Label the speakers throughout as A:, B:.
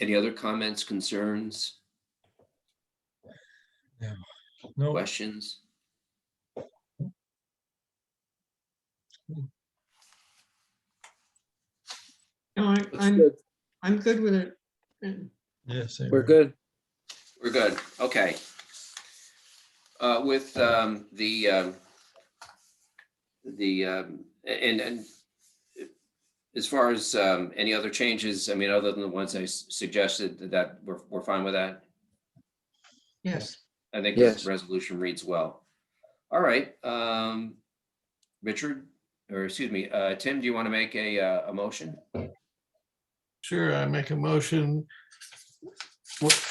A: Any other comments, concerns,
B: No,
A: questions?
C: No, I-
A: Looks
C: I'm,
A: good.
C: I'm good with it. Mm, And
B: yes.
D: We're good.
A: We're good, okay. Uh, With um, the, um, the, um, and, and as far as um, any other changes, I mean, other than the ones I s- suggested, that we're, we're fine with that?
C: Yes,
A: I think this
D: Yes.
A: resolution reads well. All right, um, Richard, or excuse me, uh, Tim, do you want to make a, uh, a motion?
B: Sure, I make a motion. What-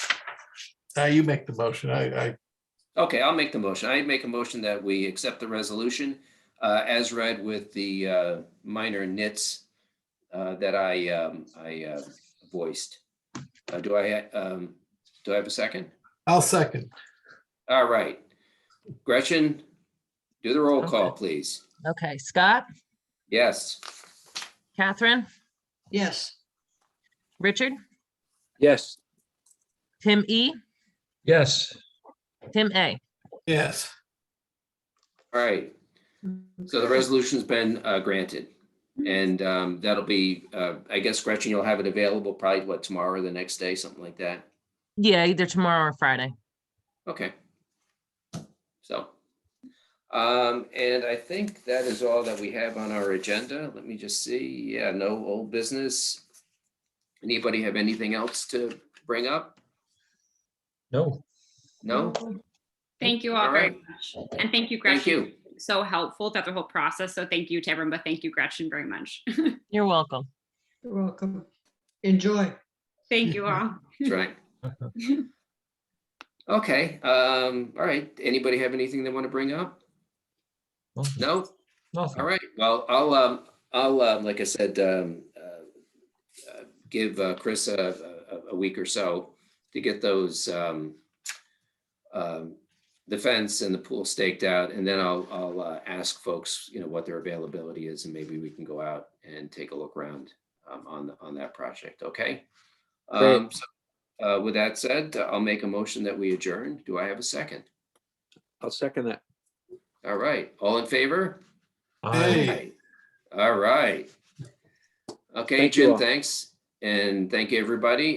B: Uh, you make the motion. I, I,
A: Okay, I'll make the motion. I make a motion that we accept the resolution uh, as read with the uh, minor nits uh, that I, um, I uh, voiced. Uh, Do I, um, do I have a second?
B: I'll second.
A: All right. Gretchen, do the roll call, please.
E: Okay, Scott,
A: Yes.
E: Catherine,
C: yes,
E: Richard,
D: Yes.
E: Tim E,
D: Yes.
E: Tim A.
B: Yes,
A: All right. So the resolution's been uh, granted. And um, that'll be, uh, I guess Gretchen, you'll have it available probably what, tomorrow or the next day, something like that?
E: Yeah, either tomorrow or Friday.
A: Okay. So. Um, and I think that is all that we have on our agenda. Let me just see. Yeah, no old business. Anybody have anything else to bring up?
D: No.
A: No?
F: Thank you all
A: All
F: very
A: right.
F: much. And thank you,
A: Thank
F: Gretchen.
A: you.
F: So helpful throughout the whole process. So thank you to everyone, but thank you, Gretchen, very much.
E: You're welcome.
C: you're welcome. Enjoy.
F: Thank you all.
A: That's right. Okay, um, all right. Anybody have anything they want to bring up? No? All
D: Nothing.
A: right, well, I'll, um, I'll, um, like I said, um, uh, uh, give uh, Chris a, a- a week or so to get those, um, um, the fence and the pool staked out, and then I'll, I'll, uh, ask folks, you know, what their availability is, and maybe we can go out and take a look around, um, on, on that project, okay?
D: Great.
A: Um, so, uh, with that said, I'll make a motion that we adjourn. Do I have a second?
D: I'll second that.
A: All right, all in favor?
B: Hey.
A: All right. Okay,
D: Thank you
A: Jim,
D: all.
A: thanks. And thank you, everybody.